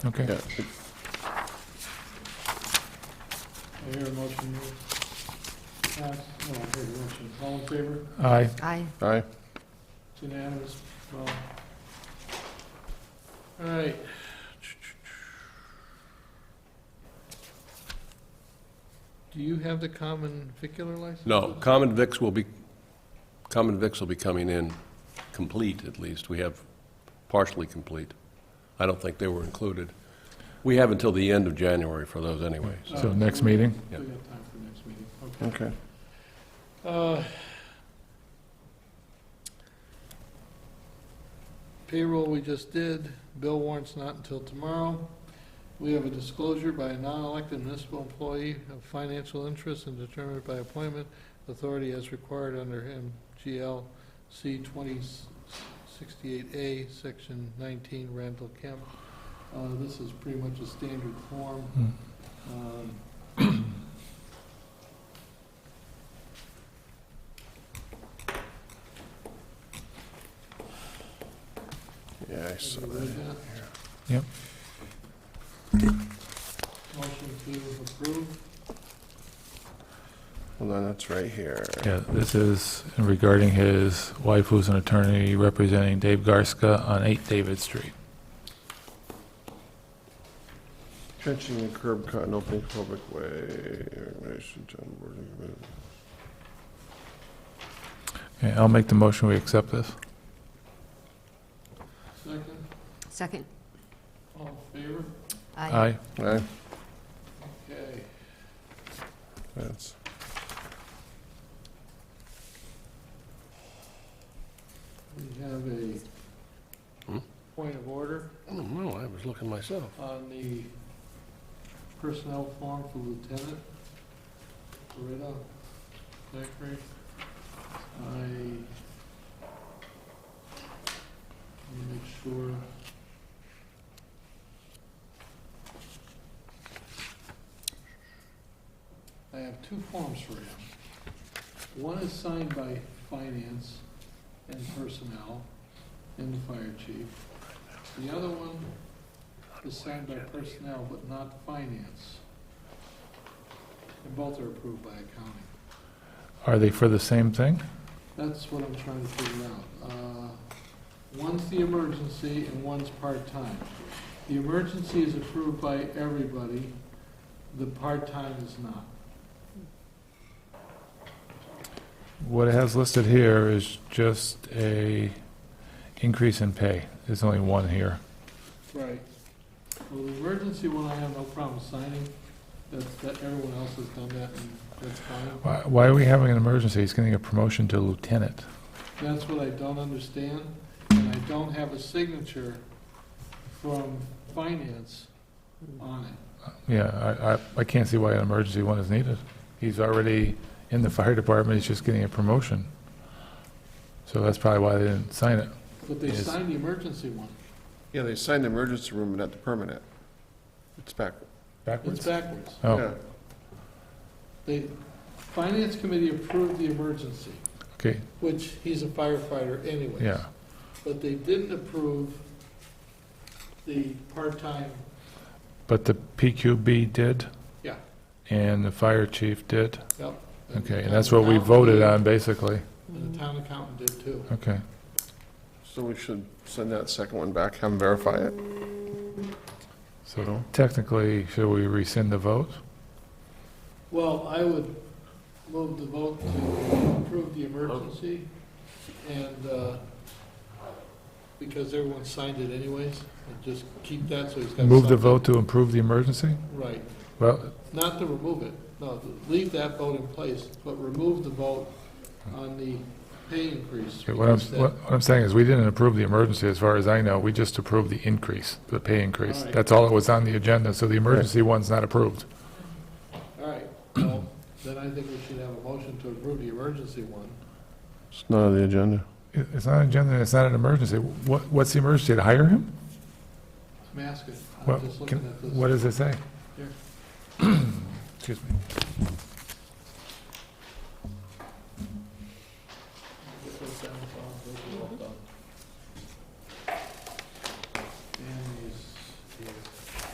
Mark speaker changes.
Speaker 1: Okay.
Speaker 2: I hear a motion. Pass, no, I hear a motion. All in favor?
Speaker 1: Aye.
Speaker 3: Aye.
Speaker 4: Aye.
Speaker 2: It's unanimous. Well. All right. Do you have the common vicular license?
Speaker 4: No, common vics will be, common vics will be coming in complete, at least. We have partially complete. I don't think they were included. We have until the end of January for those anyway. so-
Speaker 1: So next meeting?
Speaker 2: uh, We got time for next meeting, okay.
Speaker 5: Okay.
Speaker 2: Uh, Payroll we just did, bill warrants not until tomorrow. We have a disclosure by a non-elected municipal employee of financial interest and determined by appointment authority as required under MGL C 2068A, Section 19, Randall Kemp. Uh, This is pretty much a standard form.
Speaker 1: Hmm.
Speaker 2: Um,
Speaker 5: Yeah, I saw
Speaker 2: Everybody
Speaker 5: that.
Speaker 2: read that?
Speaker 1: Yep.
Speaker 2: Motion to approve.
Speaker 5: Well, then that's right here.
Speaker 1: Yeah, this is regarding his wife, who's an attorney representing Dave Garska on 8 David Street.
Speaker 5: Trenching and curb cut and opening public way. Organization, town board, and-
Speaker 1: Okay, I'll make the motion, we accept this.
Speaker 2: Second,
Speaker 3: Second.
Speaker 2: all in favor?
Speaker 1: Aye.
Speaker 5: Aye,
Speaker 2: Okay.
Speaker 5: that's,
Speaker 2: We have a
Speaker 4: Hmm?
Speaker 2: point of order
Speaker 4: I don't know, Oh, I was looking myself.
Speaker 2: on the personnel form for lieutenant. Loretta Zachary. I, let me make sure. I have two forms for you. One is signed by finance and personnel and the fire chief. The other one is signed by personnel but not finance. And both are approved by accounting.
Speaker 1: Are they for the same thing?
Speaker 2: That's what I'm trying to figure out. Uh, One's the emergency and one's part-time. The emergency is approved by everybody, the part-time is not.
Speaker 1: What it has listed here is just a increase in pay. There's only one here.
Speaker 2: Right. Well, the emergency one, I have no problem signing, that's, that, everyone else has done that, and that's fine.
Speaker 1: Why why are we having an emergency? He's getting a promotion to lieutenant.
Speaker 2: That's what I don't understand, and I don't have a signature from finance on it.
Speaker 1: Yeah, I, I, I can't see why an emergency one is needed. He's already in the fire department, he's just getting a promotion. So that's probably why they didn't sign it.
Speaker 2: But they
Speaker 1: Yes.
Speaker 2: signed the emergency one.
Speaker 5: yeah, they signed the emergency room, but not the permanent. It's back.
Speaker 2: It's
Speaker 1: Backwards?
Speaker 2: backwards.
Speaker 1: Oh,
Speaker 5: Yeah.
Speaker 2: The Finance Committee approved the emergency,
Speaker 1: okay,
Speaker 2: which he's a firefighter anyways.
Speaker 1: yeah.
Speaker 2: But they didn't approve the part-time,
Speaker 1: But the PQB did?
Speaker 2: Yeah.
Speaker 1: And the fire chief did?
Speaker 2: yep.
Speaker 1: Okay, and that's what we voted on, basically.
Speaker 2: And the town accountant did too.
Speaker 1: Okay.
Speaker 5: So we should send that second one back, have them verify it.
Speaker 1: So technically, should we rescind the vote?
Speaker 2: Well, I would move the vote to approve the emergency and, uh, because everyone signed it anyways, and just keep that so he's got something.
Speaker 1: Move the vote to improve the emergency?
Speaker 2: Right.
Speaker 1: Well,
Speaker 2: Not to remove it, no, to leave that vote in place, but remove the vote on the pay increase.
Speaker 1: what I'm,
Speaker 2: because that-
Speaker 1: what I'm saying is, we didn't approve the emergency, as far as I know. We just approved the increase, the pay increase.
Speaker 2: All right.
Speaker 1: That's all that was on the agenda, so the emergency one's not approved.
Speaker 2: All right, well, then I think we should have a motion to approve the emergency one.
Speaker 5: It's not on the agenda.
Speaker 1: It- It's not an agenda, and it's not an emergency. What, what's the emergency, to hire him?
Speaker 2: I'm asking, I'm
Speaker 1: What,
Speaker 2: just looking
Speaker 1: can-
Speaker 2: at this.
Speaker 1: what does it say?
Speaker 2: Here.
Speaker 1: Excuse me.